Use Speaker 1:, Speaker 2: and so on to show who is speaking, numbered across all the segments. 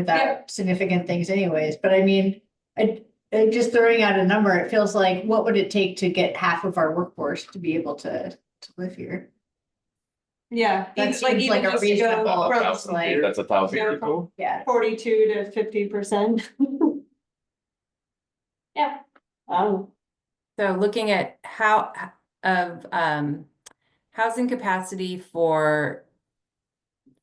Speaker 1: without significant things anyways, but I mean, I, I just throwing out a number, it feels like, what would it take to get half of our workforce to be able to, to live here?
Speaker 2: Yeah.
Speaker 1: That
Speaker 2: even- like
Speaker 1: seems
Speaker 2: even
Speaker 1: like a
Speaker 2: just to go
Speaker 1: reasonable-
Speaker 2: from
Speaker 1: That's like-
Speaker 3: That's a thousand
Speaker 2: Yeah.
Speaker 3: people.
Speaker 1: Yeah,
Speaker 2: Forty-two to fifty percent. Yeah. Oh,
Speaker 4: So looking at how, of, um, housing capacity for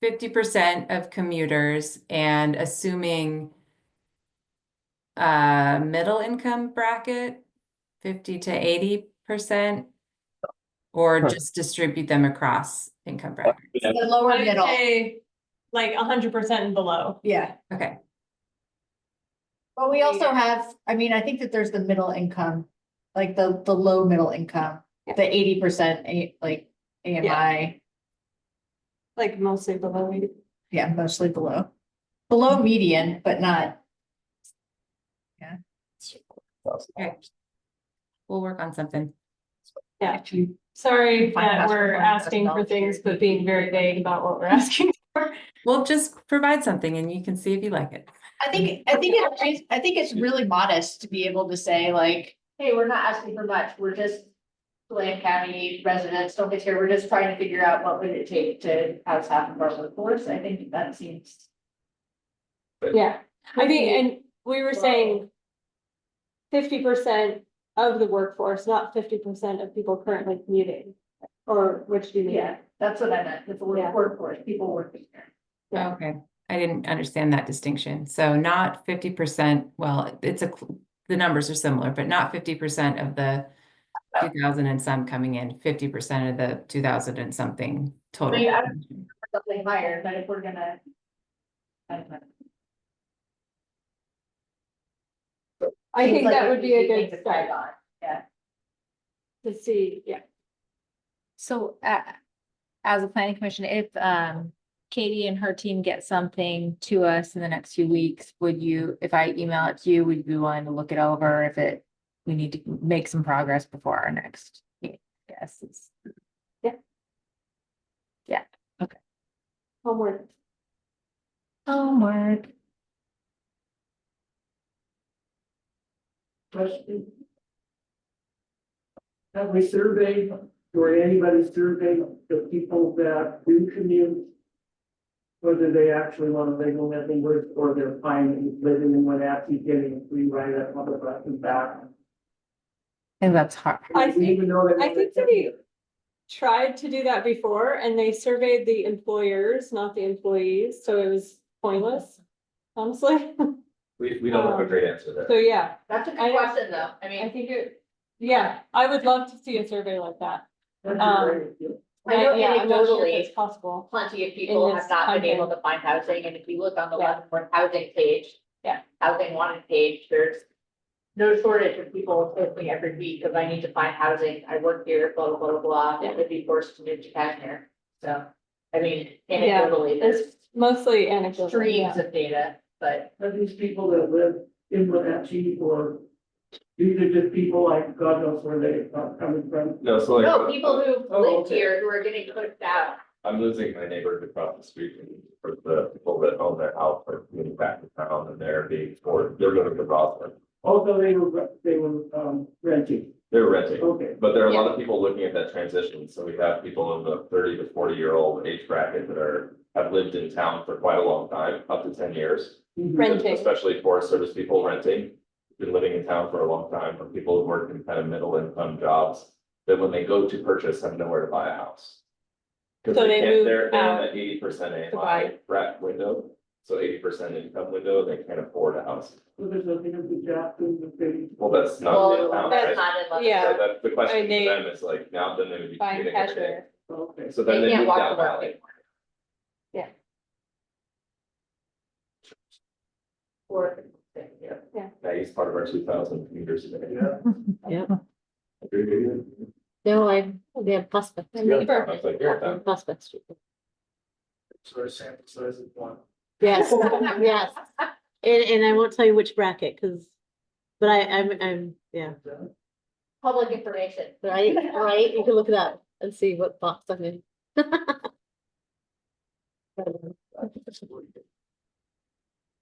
Speaker 4: fifty percent of commuters and assuming uh, middle income bracket, fifty to eighty percent, or
Speaker 5: Huh.
Speaker 4: just distribute them across income bracket.
Speaker 1: the lower
Speaker 2: I'd
Speaker 1: middle,
Speaker 2: say like hundred percent and below.
Speaker 1: yeah.
Speaker 4: Okay,
Speaker 1: But we also have, I mean, I think that there's the middle income, like the, the low middle income, the eighty percent, like AMI,
Speaker 2: Like mostly below. eighty.
Speaker 1: yeah, mostly below. Below median, but not,
Speaker 4: we'll work on something.
Speaker 2: Yeah.
Speaker 1: if you,
Speaker 2: Sorry
Speaker 1: Find
Speaker 2: that
Speaker 1: us
Speaker 2: we're
Speaker 1: one
Speaker 2: asking for
Speaker 1: personal
Speaker 2: things,
Speaker 1: security.
Speaker 2: but being very vague about what we're asking for.
Speaker 4: We'll just provide something and you can see if you like it.
Speaker 1: I think, I think it's, rea- I think it's really modest to be able to say like, hey, we're not asking for much, we're just. Blaine County residents, don't get here, we're just trying to figure out what would it take to house half of our workforce, I think that seems.
Speaker 2: Yeah, I think, and we were saying fifty percent of the workforce, not fifty percent of people currently commuting. Or which do you mean?
Speaker 1: Yeah, that's what I meant, with the
Speaker 2: Yeah.
Speaker 1: word workforce, people working here.
Speaker 2: Yeah.
Speaker 4: Okay, I didn't understand that distinction. So not fifty percent, well, it's a, cl- the numbers are similar, but not fifty percent of the
Speaker 1: Oh.
Speaker 4: two thousand and some coming in, fifty percent of the two thousand and something total.
Speaker 1: Yeah. Something higher, but if we're gonna. I don't know.
Speaker 2: I
Speaker 1: Seems
Speaker 2: think
Speaker 1: like
Speaker 2: that would be a
Speaker 1: easy thing
Speaker 2: good
Speaker 1: to
Speaker 2: start
Speaker 1: on, yeah.
Speaker 2: to see, yeah.
Speaker 6: So, uh, as a planning commission, if, um, Katie and her team get something to us in the next few weeks, would you, if I email it to you, would you be willing to look it over if it, we need to make some progress before our next, meeting? yes, it's,
Speaker 2: Homework.
Speaker 6: homework.
Speaker 7: question? Have we surveyed, or anybody surveyed the people that do commute? Whether they actually want to live in Leavenworth or they're fine living in Wenatchee, getting a free ride at Mother and back?
Speaker 6: And that's hard.
Speaker 2: I
Speaker 7: We
Speaker 2: think,
Speaker 7: even know that-
Speaker 2: I think that he tried to do that before and they surveyed the employers, not the employees, so it was pointless. Honestly,
Speaker 3: We, we don't have a great answer there.
Speaker 2: so yeah,
Speaker 1: That's a
Speaker 2: I
Speaker 1: good
Speaker 2: don't-
Speaker 1: question, though, I
Speaker 2: I
Speaker 1: mean,
Speaker 2: think it, yeah, I would love to see a survey like that.
Speaker 7: That's
Speaker 2: um,
Speaker 7: great.
Speaker 1: I know
Speaker 2: Yeah, I'm not sure if
Speaker 1: anecdotally-
Speaker 2: It's possible.
Speaker 1: plenty of people have
Speaker 2: this
Speaker 1: not been
Speaker 2: content.
Speaker 1: able to find housing, and if you look on the
Speaker 2: Yeah.
Speaker 1: Leavenworth housing page.
Speaker 2: Yeah.
Speaker 1: Housing wanted page, there's no shortage of people posting every week of I need to find housing, I work here, blah, blah, blah, blah, and would be forced to move to Kashmir. So, I mean,
Speaker 2: Yeah,
Speaker 1: anecdotally,
Speaker 2: It's
Speaker 1: there's
Speaker 2: mostly anecdotal. yeah.
Speaker 1: streams of data, but
Speaker 7: Are these people that live in Wenatchee or these are just people like God knows where they are coming from?
Speaker 3: No, so like.
Speaker 1: no, people who
Speaker 7: Oh,
Speaker 1: lived
Speaker 7: okay.
Speaker 1: here who are getting pushed out.
Speaker 3: I'm losing my neighborhood across the street and for the people that own their house are moving back to town and they're being, or they're living in Roslyn.
Speaker 7: Although they were, they were um, renting,
Speaker 3: They're renting,
Speaker 7: okay.
Speaker 3: but there are a lot of people looking at that transition. So we have people in the thirty to forty year old age bracket that are, have lived in town for quite a long time, up to ten years.
Speaker 7: Mhm.
Speaker 2: Renting.
Speaker 3: Especially Forest Service people renting, been living in town for a long time, or people who work in kind of middle income jobs. That when they go to purchase, have nowhere to buy a house. Cause
Speaker 2: So
Speaker 3: they
Speaker 2: they
Speaker 3: can't,
Speaker 2: move
Speaker 3: they're, they're in
Speaker 2: out
Speaker 3: the eighty percent AMI
Speaker 2: buy.
Speaker 3: rat window, so eighty percent income window, they can't afford a house.
Speaker 7: So there's nothing to be jacked in the city.
Speaker 3: Well, that's not. in
Speaker 1: Well,
Speaker 3: town,
Speaker 1: that's
Speaker 3: right?
Speaker 1: not in Leavenworth.
Speaker 2: Yeah.
Speaker 3: So that, the question
Speaker 2: they-
Speaker 3: for them is like, now then they would be.
Speaker 2: Buying
Speaker 3: commuting every day.
Speaker 2: cashmere.
Speaker 7: Okay.
Speaker 3: So then
Speaker 1: They
Speaker 3: they
Speaker 1: can't
Speaker 3: move
Speaker 1: walk
Speaker 3: down
Speaker 1: the road.
Speaker 3: valley.
Speaker 1: Or,
Speaker 3: Yeah.
Speaker 2: Yeah.
Speaker 3: That is part of our two thousand commuters. a day.
Speaker 7: Yeah.
Speaker 6: Yeah.
Speaker 3: Agree with you?
Speaker 6: No, I, they have prospect.
Speaker 3: I was like, you're done.
Speaker 6: Prospect Street.
Speaker 7: Sort of sample size of one.
Speaker 8: Yes, yes. And, and I won't tell you which bracket, because, but I, I'm, I'm, yeah,
Speaker 1: public information.
Speaker 8: right, right, you can look it up and see what box I'm in.